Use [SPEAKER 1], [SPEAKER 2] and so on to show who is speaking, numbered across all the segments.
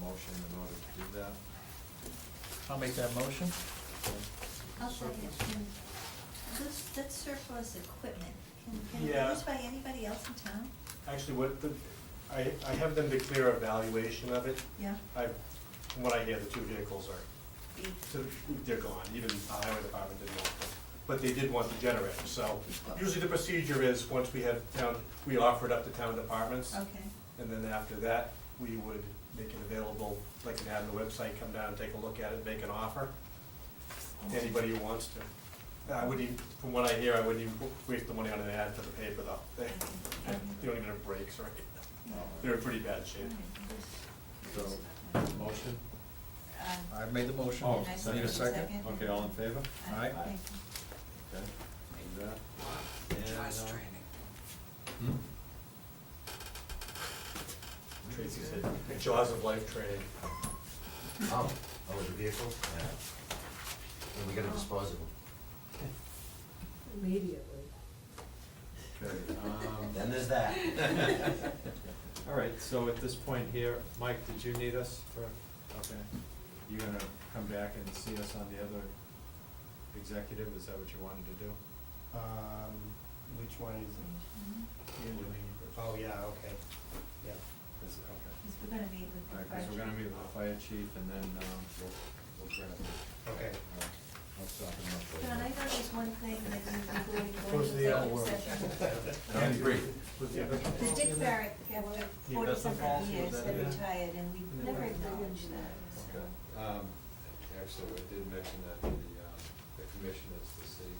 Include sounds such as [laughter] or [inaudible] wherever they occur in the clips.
[SPEAKER 1] motion in order to do that.
[SPEAKER 2] I'll make that motion.
[SPEAKER 3] I'll tell you,
[SPEAKER 1] Surplus.
[SPEAKER 3] can, this, that surplus equipment, can, can
[SPEAKER 4] Yeah.
[SPEAKER 3] it be used by anybody else in town?
[SPEAKER 4] Actually, what the, I, I have them declare a valuation of it.
[SPEAKER 3] Yeah,
[SPEAKER 4] I, from what I hear, the two vehicles are,
[SPEAKER 3] be,
[SPEAKER 4] to- they're gone, even the highway department didn't want them. But they did want the generator, so usually the procedure is, once we have town, we offer it up to town departments.
[SPEAKER 3] okay,
[SPEAKER 4] And then after that, we would make it available, like an ad on the website, come down and take a look at it, make an offer. to Anybody who wants to. I wouldn't, even- from what I hear, I wouldn't even waste the money on an ad for the paper though. [laughs] They,
[SPEAKER 3] Um,
[SPEAKER 4] they don't even have breaks, right? They're in pretty bad shape.
[SPEAKER 1] So, motion?
[SPEAKER 3] Uh,
[SPEAKER 2] I've made the motion.
[SPEAKER 1] Oh,
[SPEAKER 3] I
[SPEAKER 2] Need a
[SPEAKER 3] second. Uh,
[SPEAKER 2] second?
[SPEAKER 1] Okay, all in favor?
[SPEAKER 2] Aye.
[SPEAKER 3] thank
[SPEAKER 1] Okay, do that. And, uh,
[SPEAKER 2] Hmm?
[SPEAKER 4] Tracy said, jaws of life training.
[SPEAKER 5] Oh, oh, the vehicle? Yeah. And we got a disposable.
[SPEAKER 6] Immediately.
[SPEAKER 1] Okay,
[SPEAKER 3] [laughs]
[SPEAKER 1] um, [laughs]
[SPEAKER 5] Then there's that.
[SPEAKER 1] all right, so at this point here, Mike, did you need us for, okay, you're gonna come back and see us on the other executive, is that what you wanted to do?
[SPEAKER 7] Um, which one is it?
[SPEAKER 3] you.
[SPEAKER 7] You're doing it. Oh, yeah, okay, yeah.
[SPEAKER 1] Is- okay.
[SPEAKER 3] Because we're gonna meet with
[SPEAKER 1] All
[SPEAKER 3] the
[SPEAKER 1] right, because we're gonna meet with the fire chief and then, um, we'll, we'll grab it.
[SPEAKER 7] Okay.
[SPEAKER 1] All right, I'll stop him up
[SPEAKER 3] John, I
[SPEAKER 1] later.
[SPEAKER 3] noticed one thing that you before
[SPEAKER 4] Goes to the
[SPEAKER 3] you
[SPEAKER 4] other
[SPEAKER 3] go
[SPEAKER 4] world.
[SPEAKER 3] into executive
[SPEAKER 4] [laughs]
[SPEAKER 3] session.
[SPEAKER 1] Don't agree.
[SPEAKER 4] Was the other-
[SPEAKER 3] The Dick Barrett, after
[SPEAKER 4] The
[SPEAKER 3] forty
[SPEAKER 4] investment
[SPEAKER 3] something
[SPEAKER 4] policy,
[SPEAKER 3] years,
[SPEAKER 4] was that
[SPEAKER 3] that
[SPEAKER 4] it?
[SPEAKER 3] retired, and we
[SPEAKER 4] Yeah.
[SPEAKER 3] never acknowledged that, so.
[SPEAKER 1] Okay, um, actually, I did mention that to the, um, the commissioners to see,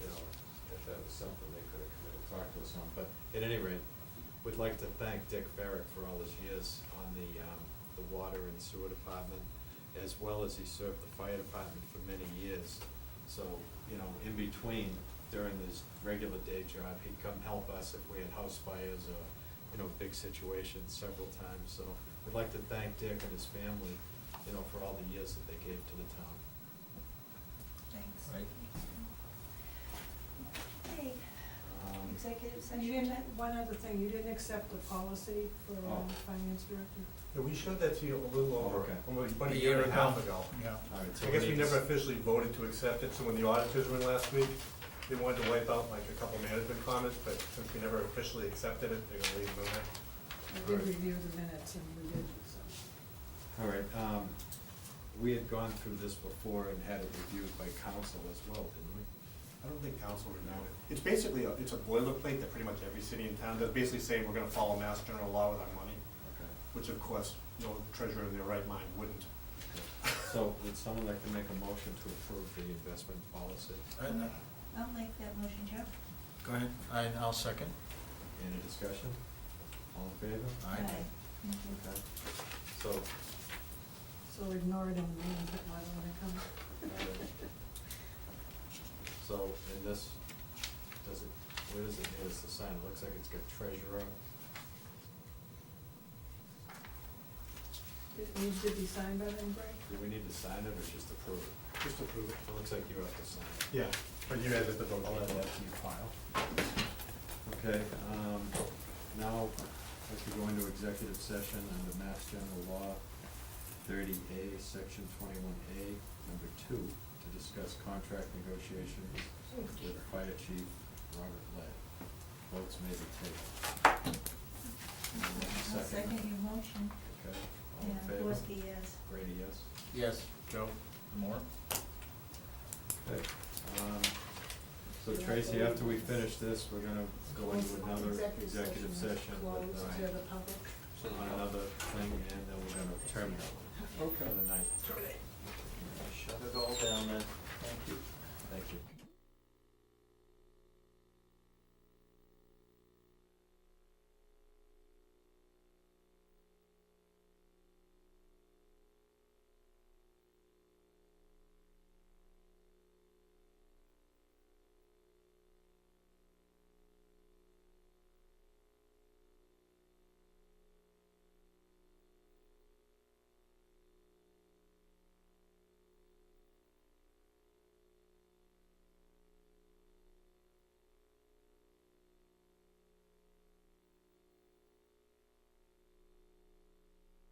[SPEAKER 1] you know, if that was something they could have come in and talked to us on, but at any rate, we'd like to thank Dick Farrick for all his years on the, um, the water and sewer department, as well as he served the fire department for many years. So, you know, in between, during his regular day job, he'd come help us if we had house fires or, you know, big situations several times, so we'd like to thank Dick and his family, you know, for all the years that they gave to the town.
[SPEAKER 3] Thanks.
[SPEAKER 2] Right.
[SPEAKER 3] Okay,
[SPEAKER 1] Um,
[SPEAKER 3] executive
[SPEAKER 6] And you
[SPEAKER 3] session.
[SPEAKER 6] didn't, one other thing, you didn't accept the policy for um,
[SPEAKER 1] Oh.
[SPEAKER 6] finance director?
[SPEAKER 4] Yeah, we showed that to you a little over,
[SPEAKER 1] Okay.
[SPEAKER 4] almost about a year and a half ago.
[SPEAKER 2] Yeah.
[SPEAKER 1] All right, so
[SPEAKER 4] I guess we
[SPEAKER 1] need to s-
[SPEAKER 4] never officially voted to accept it, so when the auditors were in last week, they wanted to wipe out like a couple management comments, but since we never officially accepted it, they're gonna leave them in
[SPEAKER 6] I did
[SPEAKER 1] Right.
[SPEAKER 6] review the minutes and we did, so.
[SPEAKER 1] All right, um, we had gone through this before and had it reviewed by council as well, didn't we?
[SPEAKER 4] I don't think council renewed it. It's basically, a- it's a boilerplate that pretty much every city in town does, basically saying we're gonna follow mass general law with our money,
[SPEAKER 1] Okay.
[SPEAKER 4] which of course, no treasurer in their right mind wouldn't.
[SPEAKER 1] okay. So would someone like to make a motion to approve the investment policy?
[SPEAKER 3] I'll make that motion, Joe.
[SPEAKER 2] uh, Go ahead, I, I'll second.
[SPEAKER 1] Any discussion? All in favor?
[SPEAKER 2] Aye.
[SPEAKER 3] Thank you.
[SPEAKER 1] Okay. So,
[SPEAKER 6] So ignore it and leave it, why don't I come?
[SPEAKER 1] so in this, does it, where does it, hit us the sign? It looks like it's got treasurer.
[SPEAKER 6] It needs to be signed by them, Greg?
[SPEAKER 1] Do we need to sign it or just approve it?
[SPEAKER 4] Just approve it.
[SPEAKER 1] It looks like you have to sign it.
[SPEAKER 4] Yeah, but you guys have to vote.
[SPEAKER 1] I'll add that to your file. Okay, um, now, I could go into executive session under Mass General Law thirty A, section twenty-one A, number two, to discuss contract negotiations with Fire Chief Robert Lay. Votes may be taken,
[SPEAKER 3] I'll second your motion.
[SPEAKER 1] okay? All in
[SPEAKER 3] Yeah, uh,
[SPEAKER 1] favor?
[SPEAKER 3] Worsky, yes.
[SPEAKER 1] Brady, yes?
[SPEAKER 2] Yes. Joe? More?
[SPEAKER 1] Okay. Um, so Tracy, after we finish this, we're gonna go into another executive session with,
[SPEAKER 6] Closed
[SPEAKER 1] uh,
[SPEAKER 6] to the public.
[SPEAKER 1] on another thing, and then we're gonna terminate for the night.
[SPEAKER 2] Shut it all down then. Thank you.
[SPEAKER 1] Thank you.